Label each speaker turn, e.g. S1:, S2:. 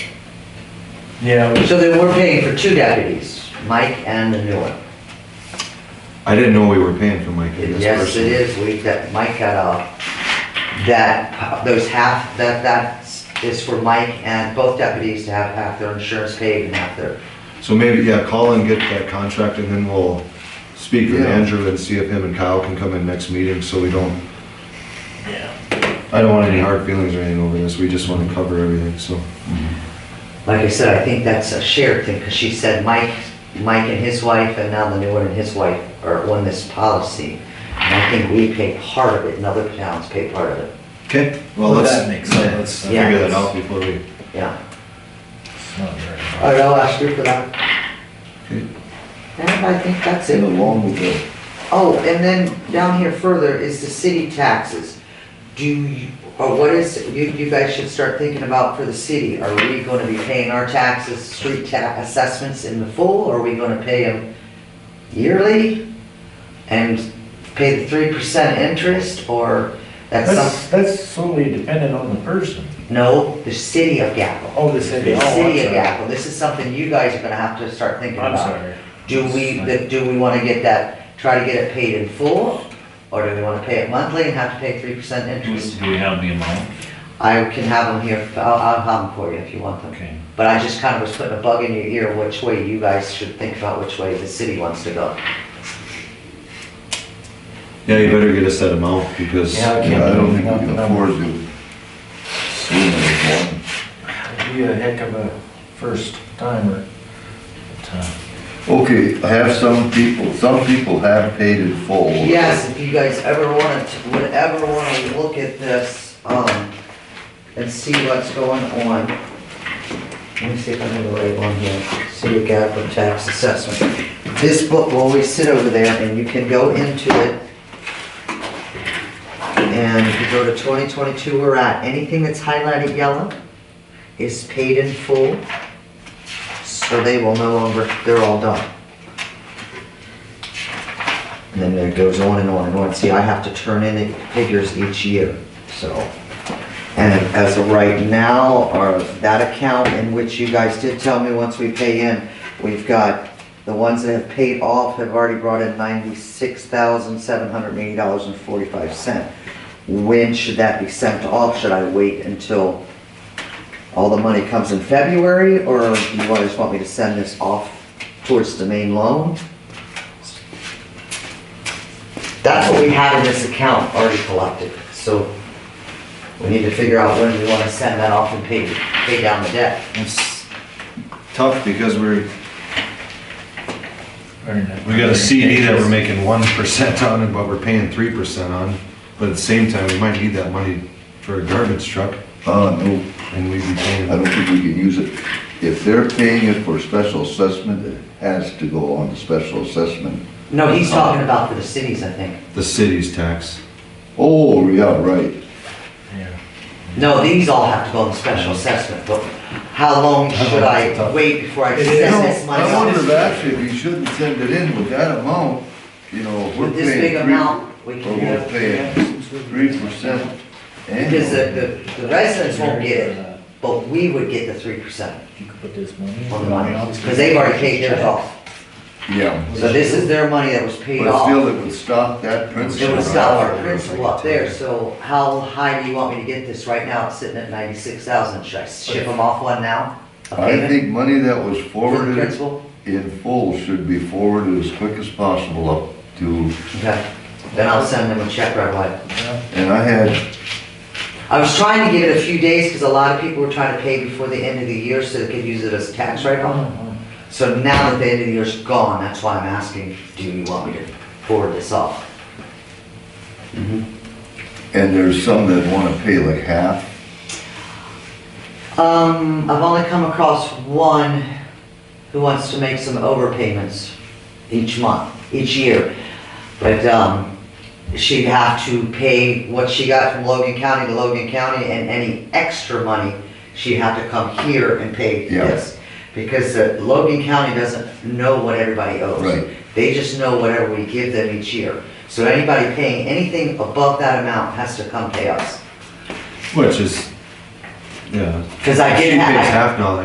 S1: Yeah,
S2: So then we're paying for two deputies, Mike and the new one.
S3: I didn't know we were paying for Mike in this
S2: Yes,
S3: person.
S2: it is, we, that Mike got off. That, those half, that, that is for Mike and both deputies to have half their insurance paid and half their,
S3: So maybe, yeah, call and get that contract and then we'll speak with
S2: Yeah.
S3: Andrew and see if him and Kyle can come in next meeting so we don't,
S1: yeah.
S3: I don't want any hard feelings or anything over this, we just wanna cover everything, so.
S2: like I said, I think that's a shared thing, because she said Mike, Mike and his wife, and now the new one and his wife are on this policy. And I think we pay part of it, and other towns pay part of it,
S3: Okay, well,
S1: Well,
S3: let's,
S1: that makes sense.
S3: let's figure that out before we,
S2: yeah.
S1: It's not very
S2: All right, I'll ask you for that.
S3: Okay.
S2: And I think that's it.
S4: along with the
S2: Oh, and then down here further is the city taxes. Do you, or what is, you, you guys should start thinking about for the city. Are we gonna be paying our taxes, street ta, assessments in the full? Are we gonna pay them yearly? And pay the three percent interest or that's some,
S1: That's, that's solely dependent on the person.
S2: no, the city of Gackel.
S1: Oh, the city.
S2: The
S1: Oh, I'm
S2: city of
S1: sorry.
S2: Gackel. This is something you guys are gonna have to start thinking
S1: I'm
S2: about.
S1: sorry.
S2: Do we, the- do we wanna get that, try to get it paid in full, or do we wanna pay it monthly and have to pay three percent
S5: Do we-
S2: interest?
S5: do we have the amount?
S2: I can have them here, I'll, I'll have them for you if you want them.
S5: Okay.
S2: But I just kinda was putting a bug in your ear, which way you guys should think about which way the city wants to go.
S3: yeah, you better get us that amount because. uh,
S1: Yeah, I can't
S4: Yeah, I don't think we
S1: Nothing
S4: can
S1: else.
S4: afford to swing it one.
S1: It'd be a heck of a first timer. But, uh,
S4: Okay, I have some people, some people have paid in full.
S2: Yes, if you guys ever wanna, t- would ever wanna look at this, um, and see what's going on. Let me see if I can label on here, city of Gadsden tax assessment. This book will always sit over there and you can go into it. And if you go to twenty twenty-two, we're at, anything that's highlighted yellow is paid in full. So they will no longer, they're all done. And then it goes on and on and on. See, I have to turn in the figures each year, so. And as of right now, our, that account in which you guys did tell me once we pay in, we've got, the ones that have paid off have already brought in ninety-six thousand, seven hundred and eighty dollars and forty-five cent. When should that be sent off? Should I wait until all the money comes in February? Or do you guys want me to send this off towards the main loan? That's what we have in this account already collected, so we need to figure out when we wanna send that off and pay, pay down the debt.
S3: It's tough because we're,
S1: very nice.
S3: we got a CD that we're making one percent on and but we're paying three percent on. But at the same time, we might need that money for a garbage truck
S4: Uh, no,
S3: and we'd be
S4: I
S3: paying.
S4: don't think we can use it. If they're paying it for special assessment, it has to go on the special assessment.
S2: No, he's talking about for the cities, I think.
S3: the city's tax.
S4: Oh, yeah, right.
S1: Yeah.
S2: No, these all have to go in special assessment, but how long should I wait before I
S1: It is.
S2: send this
S1: No,
S2: money
S4: I wonder if
S2: off?
S4: actually we shouldn't send it in with that amount, you know, if we're
S2: With this big
S4: paying
S2: amount, we
S4: three,
S2: can
S4: or
S2: do
S4: we're
S2: it.
S4: paying three percent
S2: Because
S4: annually.
S2: the, the, the residents won't get it, but we would get the three percent
S1: You could put this money. in.
S2: on the money, cause they've already paid theirs off.
S4: Yeah.
S2: So this is their money that was paid
S4: But
S2: off.
S4: still, it would stop that principle.
S2: It was stop our principal up there, so how high do you want me to get this right now? It's sitting at ninety-six thousand. Should I ship them off one now? A
S4: I
S2: payment
S4: think money that was
S2: For the
S4: forwarded
S2: principal?
S4: in full should be forwarded as quick as possible up to,
S2: Okay, then I'll send them a check right away.
S1: Yeah.
S4: and I had,
S2: I was trying to give it a few days because a lot of people were trying to pay before the end of the year so they could use it as tax write-off. So now that the end of the year's gone, that's why I'm asking, do you want me to forward this off?
S4: and there's some that wanna pay like half.
S2: Um, I've only come across one who wants to make some overpayments each month, each year. But, um, she'd have to pay what she got from Logan County to Logan County and any extra money, she'd have to come here and pay
S4: Yeah.
S2: this. Because uh, Logan County doesn't know what everybody owes.
S4: Right.
S2: They just know whatever we give them each year. So anybody paying anything above that amount has to come pay us.
S3: Which is, yeah.
S2: Cause I
S3: She
S2: did
S3: pays
S2: have.
S3: half now,